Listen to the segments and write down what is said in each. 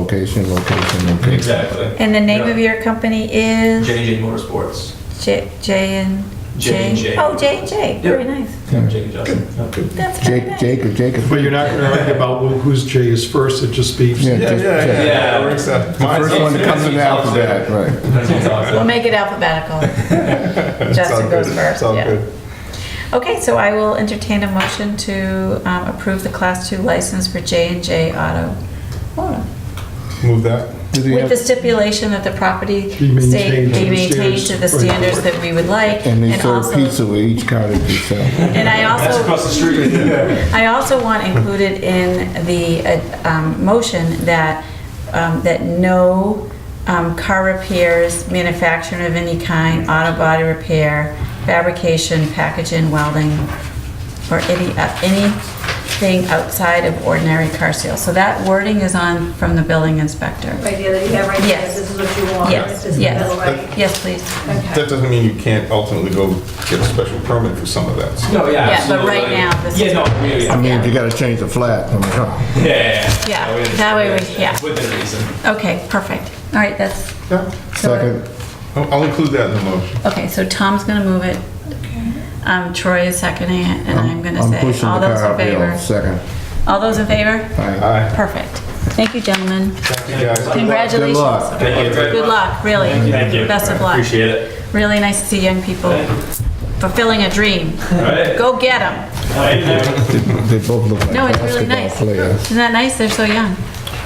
Location, location, location. Exactly. And the name Yeah. of your company is? JJ Motorsports. J, J and? J and J. Oh, J and J, very nice. Yeah. Jake and Justin. Yeah. That's very Jake, nice. Jacob, Jacob. But you're not gonna argue about who- whose J is first, it just be, Yeah, just- yeah. yeah. The first one that comes in the Mine's- alphabet, right. That's what it's all We'll about. make it alphabetical. Justin goes first, yeah. Okay, so I will entertain a motion to um, approve the Class 2 license for J and J Auto. Auto. Move that. Does he With the have- stipulation that the property Be stay, maintained to be the maintained to the standards. Right. standards that we would like. And they serve also- pizza with each cottage they sell. And I also. That's across the street. I also want included in the uh, um, motion that, um, that no um, car repairs, manufacturing of any kind, auto body repair, fabrication, packaging, welding, or any, uh, anything outside of ordinary car sales. So that wording is on from the building inspector. Right, yeah, that you have right there, Yes. this is what you want, Yes, this is the yes. middle, right? Yes, please. That doesn't mean you can't ultimately go get a special permit for some of that. No, yeah, Yeah, but absolutely. right now, this Yeah, is- no, yeah, I yeah. mean, if you gotta change the flat, I'm like, huh. Yeah, yeah, Yeah, we that way we- understand. yeah. Within reason. Okay, perfect. All right, that's. Yeah. so- Second, I'll I'll include that in the motion. Okay, so Tom's gonna move it. Um, Troy is seconding it, and I'm I'm gonna I'm say, pushing all the those car up in hill. favor? Second. All those in favor? Aye. Aye. Perfect. Thank you, gentlemen. Thank you, guys. Congratulations. luck. Thank you very Good much. luck, really. Thank you. Best of luck. Appreciate it. Really nice to see young people Thank you. fulfilling a dream. All right. Go get them. Thank you. They both look like No, it's basketball really nice. players. Isn't that nice? They're so young.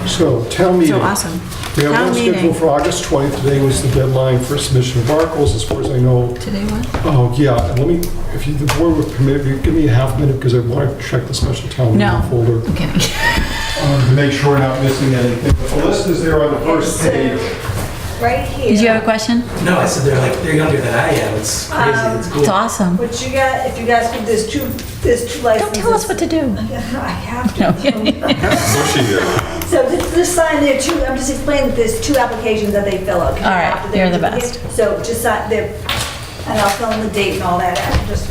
so town meeting. So awesome. We have Town one meeting. scheduled for August 20th, today was the deadline for submission of articles, as far as I know. Today what? Oh, yeah, and let me, if you, the board would permit, me, give me a half minute, because I want to check the special town No. meeting folder. I'm kidding. um, To make sure we're not missing anything. But The list is there on the first page. Right here. Did you have a question? No, I said they're like they're younger than I am. It's crazy. It's cool. It's awesome. What you got, if you guys could, there's two, there's two licenses. Don't tell us what to do. I have to. What she did. So this, this sign there, two, I'm just explaining, that there's two applications that they fill out. All right, After they're you're the duplicate. So just sign, they're, and I'll fill in the date and all that, I just,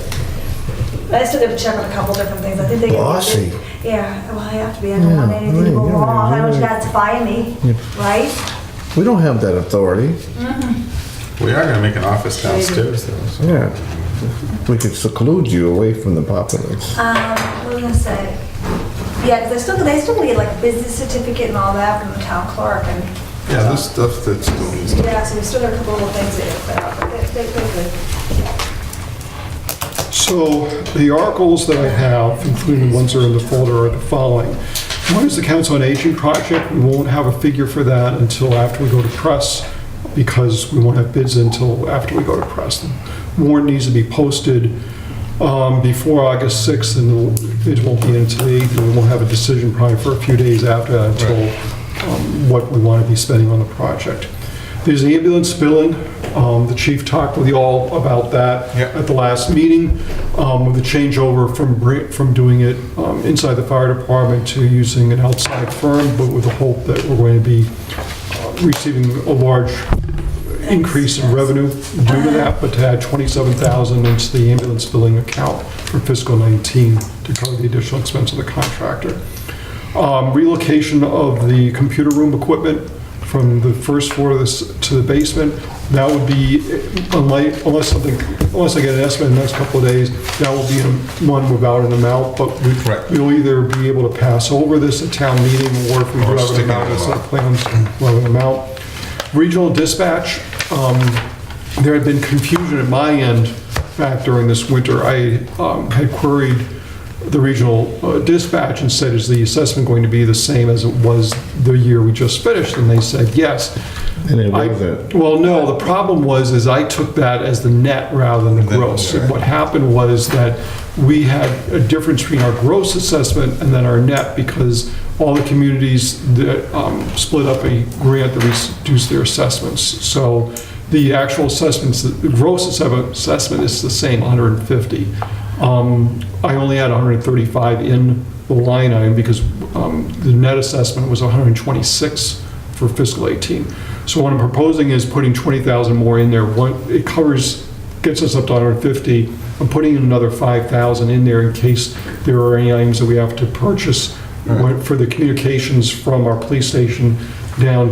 I still gotta check on a couple different things, I think they. Bossy. Yeah, well, I have to be, I don't want Yeah, anything to go yeah, yeah, wrong, I don't want you yeah. guys to fire me, right? We don't have that authority. We are gonna make an office downstairs though. so- Yeah. We could seclude you away from the populace. Uh, Um, what was I gonna say? Yeah, 'cause they still, they still need like business certificate and all that from the town clerk and, Yeah, this stuff that's doing this. yeah, so we still got a couple little things that, are out, but they, they, they're good. So the articles that I have, including the ones that are in the folder, are the following. One is the Council on Aging project. We won't have a figure for that until after we go to press because we won't have bids until after we go to press. The Warrant needs to be posted um, before August 6th and it won't be until 8th. And we won't have a decision probably for a few days after that until um, what we want to be spending on the project. There's the ambulance billing. Um, The chief talked with you all about that Yep. at the last meeting, um, with the changeover from, bri- from doing it um, inside the fire department to using an outside firm, but with the hope that we're going to be uh, receiving a large increase in revenue due to that, but to add 27,000 into the ambulance billing account for fiscal 19 to cover the additional expense of the contractor. Um, Relocation of the computer room equipment from the first floor to this- to the basement, that would be, uh, unlike- unless something, unless I get an estimate in the next couple of days, that will be a- one without an amount, but we- Correct. we'll either be able to pass over this at town meeting, or if we do Or have stick it an amount, in it's the not plans, we'll have an amount. Regional dispatch, um, there had been confusion at my end back during this winter. I um, had queried the regional uh, dispatch and said, is the assessment going to be the same as it was the year we just finished? And they said, yes. And it I- wasn't. Well, no, the problem was, is I took that as the net rather than the Then, gross. right. What happened was that we had a difference between our gross assessment and then our net because all the communities that um, split up a grant that reduced their assessments. So the actual assessments, the gross assess- assessment is the same, 150. Um, I only had 135 in the line item because um, the net assessment was 126 for fiscal 18. So what I'm proposing is putting 20,000 more in there. One, it covers, gets us up to 150. I'm putting in another 5,000 in there in case there are any items that we have to purchase for the communications from our police station down